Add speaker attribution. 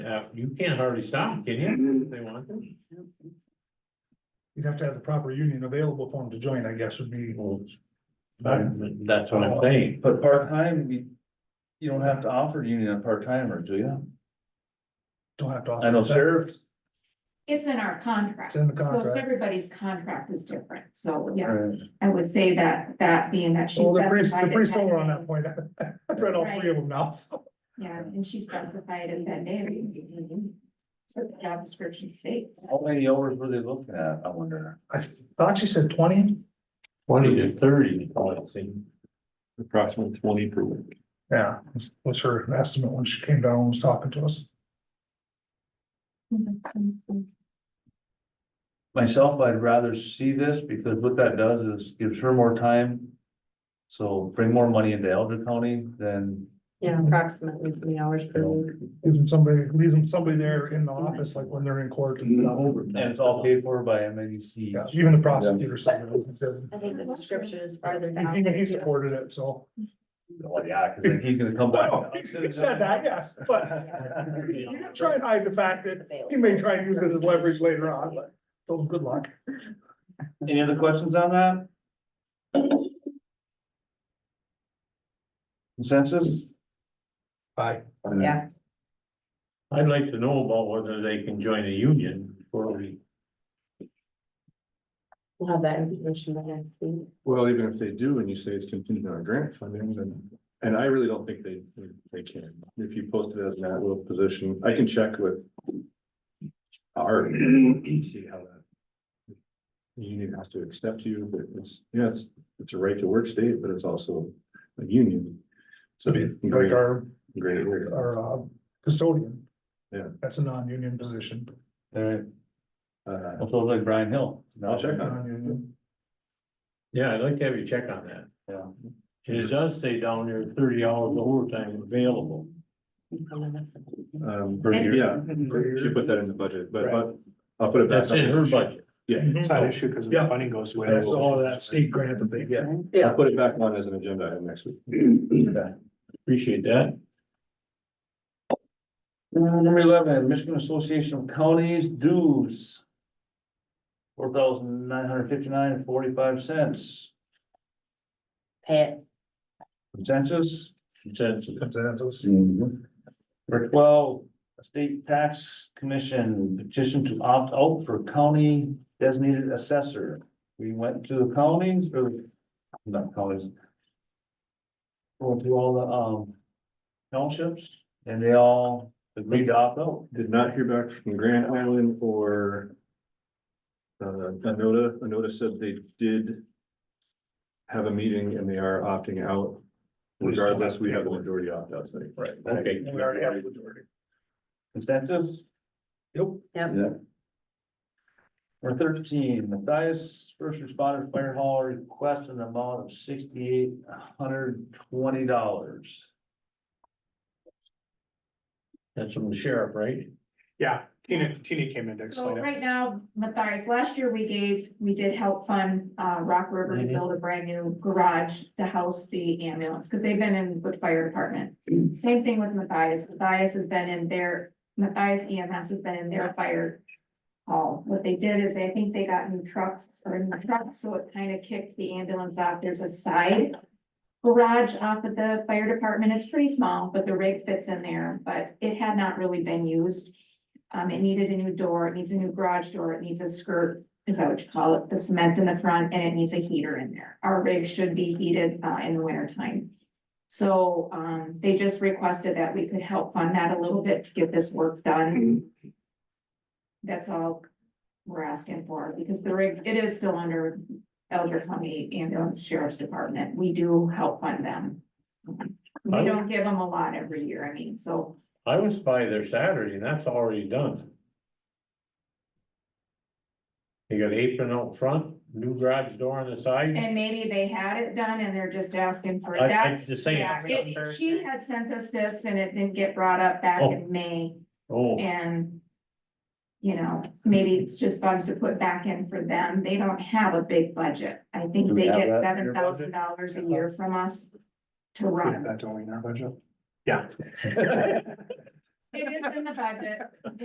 Speaker 1: uh, you can't hardly stop, them, can
Speaker 2: Mm-hmm.
Speaker 1: you, if they want to?
Speaker 3: You'd have to have the proper union available for them to join, I guess, would be.
Speaker 1: Well, that- That's what I'm saying,
Speaker 4: But part-time, we, you don't have to offer union a part-timer, do you?
Speaker 3: Don't have to.
Speaker 4: I know sheriffs,
Speaker 5: It's in our contract.
Speaker 3: It's in the
Speaker 5: So it's
Speaker 3: contract.
Speaker 5: everybody's contract is different. So yes,
Speaker 4: right,
Speaker 5: I would say that, that being that she
Speaker 3: Well, they're pretty,
Speaker 5: specified.
Speaker 3: they're pretty
Speaker 5: it
Speaker 3: similar on
Speaker 5: day.
Speaker 3: that point. I've read all three of them now, so.
Speaker 5: Yeah, and she specified it that day. That's what the job description states.
Speaker 4: how many hours were they looking at, I wonder?
Speaker 3: I thought she said twenty.
Speaker 1: twenty to thirty, I'd say. Approximately twenty per week.
Speaker 3: Yeah, was her estimate when she came down and was talking to us.
Speaker 4: Myself, I'd rather see this because what that does is gives her more time. So bring more money into Elder County than,
Speaker 6: Yeah, approximately twenty hours per week.
Speaker 3: Gives them somebody, leaves them somebody there in the office, like when they're in court and
Speaker 2: Mm-hmm.
Speaker 3: stuff.
Speaker 4: and it's all paid for by M A D C.
Speaker 3: Mm-hmm. Yeah, Even the prosecutor said. it.
Speaker 6: I think the description is farther
Speaker 3: And
Speaker 6: down.
Speaker 3: Even he supported it, so.
Speaker 4: Well, Oh, yeah, cause then he's gonna come back.
Speaker 3: Well, He he said that, yes, but you can try and hide the fact that he may try and use it as leverage later on, but so good luck.
Speaker 4: Any other questions on that? Consensus?
Speaker 3: Bye.
Speaker 6: Yeah,
Speaker 1: I'd like to know about whether they can join a union before we.
Speaker 6: we'll have that information by next week.
Speaker 2: Well, even if they do, and you say it's contingent on grant funding, then, and I really don't think they, they can. If you post it as an at-will position, I can check with. Our, see how that. The union has to accept you, but it's, yeah, it's, it's a right to work state, but it's also a union. So.
Speaker 3: Like
Speaker 2: Great,
Speaker 3: our,
Speaker 2: great.
Speaker 3: our uh, custodian.
Speaker 2: Yeah.
Speaker 3: That's a non-union position.
Speaker 4: Alright,
Speaker 2: Uh,
Speaker 4: well, so it's like Brian Hill.
Speaker 2: I'll check on it.
Speaker 3: Non-union.
Speaker 1: Yeah, I'd like to have you check on that.
Speaker 4: Yeah.
Speaker 1: And it does say down there thirty hours overtime available.
Speaker 2: Um, for- yeah, she put that in the budget, but, but I'll put it back.
Speaker 1: That's in her budget.
Speaker 2: Yeah.
Speaker 3: It's not an
Speaker 2: issue because
Speaker 3: the
Speaker 2: funding goes away.
Speaker 3: That's all that state grant that they get.
Speaker 2: I'll put it back on as an agenda item next week.
Speaker 1: Appreciate that.
Speaker 4: Uh, Number eleven, Michigan Association of Counties dues. Four thousand nine hundred fifty-nine and forty-five cents.
Speaker 6: Pay it.
Speaker 4: Consensus?
Speaker 1: Consensus.
Speaker 3: Consensus.
Speaker 2: Mm.
Speaker 4: Number twelve, State Tax Commission petition to opt out for county designated assessor. We went to the counties or not counties. Going through all the um townships and they all agreed to opt out.
Speaker 2: Did not hear back from Grand Island or. Uh, Anota, Anota said they did. Have a meeting and they are opting out. Regardless, we have the majority opt out. Right.
Speaker 1: Okay.
Speaker 3: We already have the majority.
Speaker 4: Consensus?
Speaker 3: Yep.
Speaker 6: Yep.
Speaker 4: Number thirteen, Matthias First Responder Fire Hall request an amount of sixty-eight hundred twenty dollars.
Speaker 1: That's from the sheriff, right?
Speaker 7: Yeah, Tina, Tina came in to
Speaker 5: So
Speaker 7: explain it.
Speaker 5: right now, Matthias, last year we gave, we did help fund uh Rock River to
Speaker 1: Mhm.
Speaker 5: build a brand new garage to house the ambulance, because they've been in with fire department. Same thing with Matthias. Matthias has been in their, Matthias EMS has been in their fire. Hall. What they did is I think they got new trucks or new trucks, so it kind of kicked the ambulance off. There's a side. Garage off of the fire department. It's pretty small, but the rig fits in there, but it had not really been used. Um, it needed a new door, it needs a new garage door, it needs a skirt, is that what you call it, the cement in the front, and it needs a heater in there. Our rig should be heated, uh, in the winter time. So, um, they just requested that we could help fund that a little bit to get this work done. That's all we're asking for, because the rig, it is still under Elder County Ambulance Sheriff's Department. We do help fund them. We don't give them a lot every year, I mean, so
Speaker 1: I was by there Saturday and that's already done. They got apron out front, new garage door on the side.
Speaker 5: And maybe they had it done and they're just asking for
Speaker 1: I,
Speaker 5: that.
Speaker 1: I just saying,
Speaker 5: Yeah, it- She had sent us this and it didn't get brought up back in May
Speaker 1: oh,
Speaker 5: and. You know, maybe it's just funds to put back in for them. They don't have a big budget. I think
Speaker 4: Do we
Speaker 5: they
Speaker 4: have
Speaker 5: get
Speaker 4: that in
Speaker 5: seven
Speaker 7: your budget?
Speaker 5: thousand dollars a year from us to
Speaker 7: Yeah,
Speaker 5: run.
Speaker 7: that don't mean our budget. Yeah.
Speaker 5: It is in the budget.